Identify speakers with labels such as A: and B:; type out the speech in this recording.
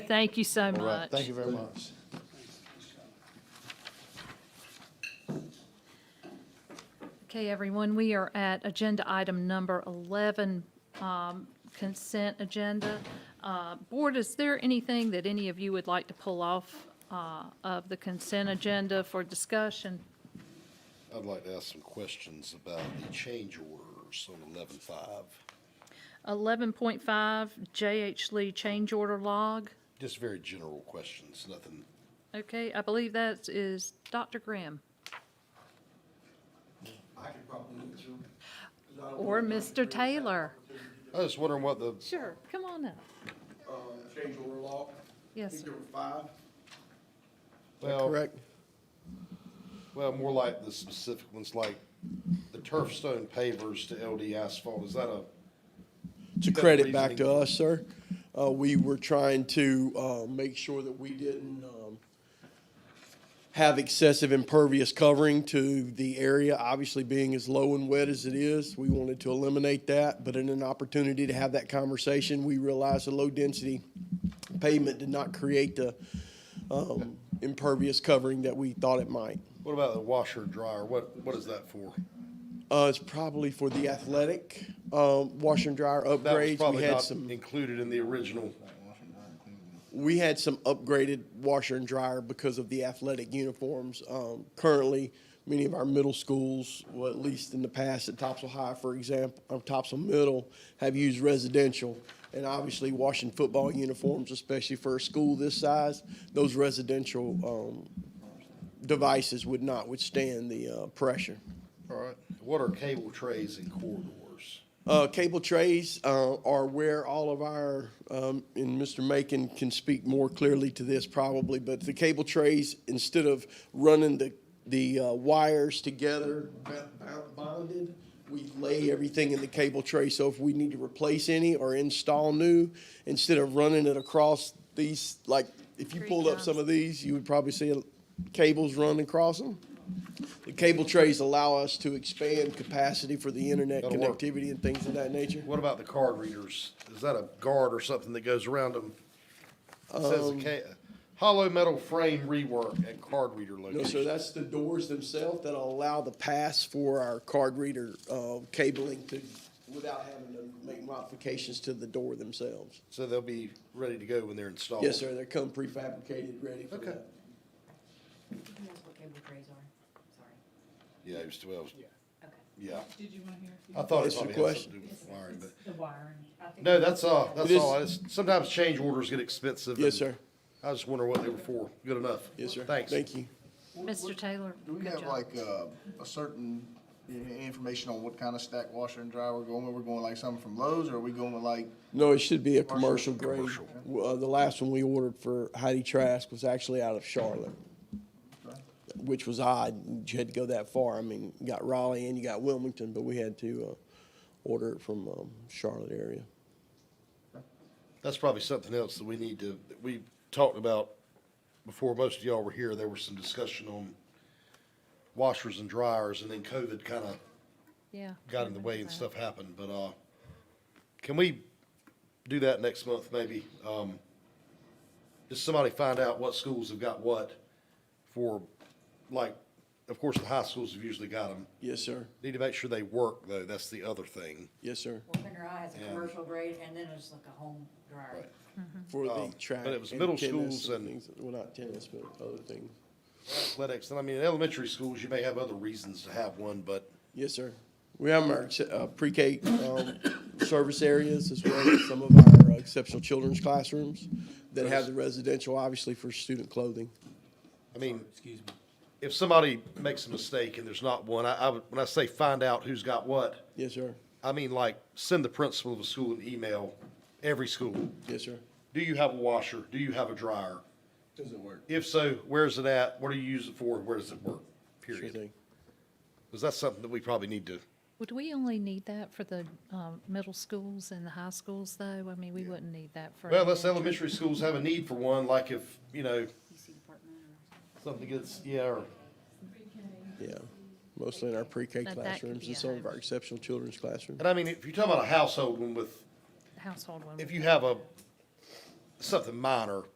A: Thank you so
B: All right,
A: much.
B: thank you very much.
A: Okay, everyone, we are at agenda item number 11, um, consent agenda. Uh, Board, is there anything that any of you would like to pull off uh, of the consent agenda for discussion?
C: I'd like to ask some questions about the change orders on eleven five.
A: 11.5 JH Lee change order log.
C: Just very general questions, nothing,
A: Okay, I believe that is Dr. Graham
D: I could probably do it too.
A: or Mr. Taylor.
C: I was wondering what the,
A: Sure, come on up.
D: Uh, change order law.
A: Yes, sir.
D: Number five.
C: well,
B: Correct?
C: well, more like the specific ones, like the turf stone pavers to LD asphalt, is that a,
B: To
C: Got the
B: credit back to
C: reasoning.
B: us, sir, uh, we were trying to, uh, make sure that we didn't, um, have excessive impervious covering to the area, obviously being as low and wet as it is. We wanted to eliminate that, but in an opportunity to have that conversation, we realized the low-density pavement did not create the, um, impervious covering that we thought it might.
C: what about the washer dryer, what, what is that for?
B: Uh, it's probably for the athletic, um, washer and dryer
C: That was
B: upgrades. We
C: probably
B: had
C: not
B: some,
C: included in the original,
B: we had some upgraded washer and dryer because of the athletic uniforms. Um, currently, many of our middle schools, well, at least in the past, at Topsail High, for example, or Topsail Middle, have used residential. And obviously, washing football uniforms, especially for a school this size, those residential, um, devices would not withstand the, uh, pressure.
C: all right, what are cable trays and corridors?
B: Uh, cable trays uh, are where all of our, um, and Mr. Macon can speak more clearly to this probably, but the cable trays, instead of running the, the uh, wires together ba- ba- bonded, we lay everything in the cable tray. So if we need to replace any or install new, instead of running it across these, like, if you
A: Three
B: pulled up some
A: times.
B: of these, you would probably see cables run across them. The cable trays allow us to expand capacity for the internet
C: That'll work.
B: connectivity and things of that nature.
C: What about the card readers? Is that a guard or something that goes around them? It says
B: Um,
C: a ca- hollow metal frame rework at card reader
B: No, sir,
C: location.
B: that's the doors themselves that allow the pass for our card reader uh, cabling to, without having to make modifications to the door themselves.
C: So they'll be ready to go when they're installed.
B: Yes, sir, they come prefabricated, ready for
C: Okay.
B: that.
E: Who knows what cable trays are? Sorry.
C: Yeah, it was twelve.
E: Okay.
C: Yeah.
F: Did you want to hear?
C: I thought it
B: That's your
C: probably had something to do with wiring, but,
E: The wiring. I think-
C: no, that's, uh, that's
B: It is-
C: all. It's- Sometimes change orders get expensive.
B: Yes,
C: and
B: sir,
C: I was just wondering what they were for. Good enough.
B: yes, sir.
C: Thanks.
B: Thank you.
A: Mr. Taylor.
D: Do we
A: good
D: have
A: job.
D: like, uh, a certain i- information on what kind of stack washer and dryer we're going with? We're going like something from Lowe's or are we going with like,
B: No, it should be a commercial grade.
C: Commercial.
B: Uh, the last one we ordered for Heidi Trask was actually out of Charlotte, which was odd. You had to go that far. I mean, you got Raleigh and you got Wilmington, but we had to, uh, order it from, um, Charlotte area.
C: That's probably something else that we need to, that we talked about before most of y'all were here. There was some discussion on washers and dryers and then COVID kind of
A: Yeah.
C: got in the way and stuff happened, but, uh, can we do that next month, maybe? Um, just somebody find out what schools have got what for, like, of course, the high schools have usually got them.
B: Yes, sir.
C: Need to make sure they work, though, that's the other thing.
B: Yes, sir.
E: Warfinger Eye has a
C: Yeah.
E: commercial grade and then it's like a home dryer.
C: Right.
B: For
C: Um,
B: the track.
C: but it was
B: and
C: middle
B: tennis
C: schools and-
B: things- Well, not tennis, but other things.
C: Athletics, and I mean, in elementary schools, you may have other reasons to have one, but
B: Yes, sir. We have our uh, pre-K um, service areas as well as some of our uh, exceptional children's classrooms that have the residential, obviously, for student clothing.
C: I mean, if somebody makes a mistake and there's not one, I, I would, when I say find out who's got what,
B: Yes, sir.
C: I mean, like, send the principal of a school an email, every school.
B: Yes, sir.
C: Do you have a washer? Do you have a dryer?
D: does it work?
C: If so, where's it at? What do you use it for? Where does it work?
B: Sure
C: Period.
B: thing.
C: Because that's something that we probably need to,
A: Would we only need that for the um, middle schools and the high schools, though? I mean, we wouldn't need that for.
C: well, unless elementary schools have a need for one, like if, you know,
E: PC department or
C: something gets, yeah, or,
B: Yeah, mostly in our pre-K
A: But that could
B: classrooms
A: be
B: and
A: a
B: some of our
A: hybrid.
B: exceptional children's classrooms.
C: and I mean, if you're talking about a household one with,
A: Household one.
C: if you have a, something minor,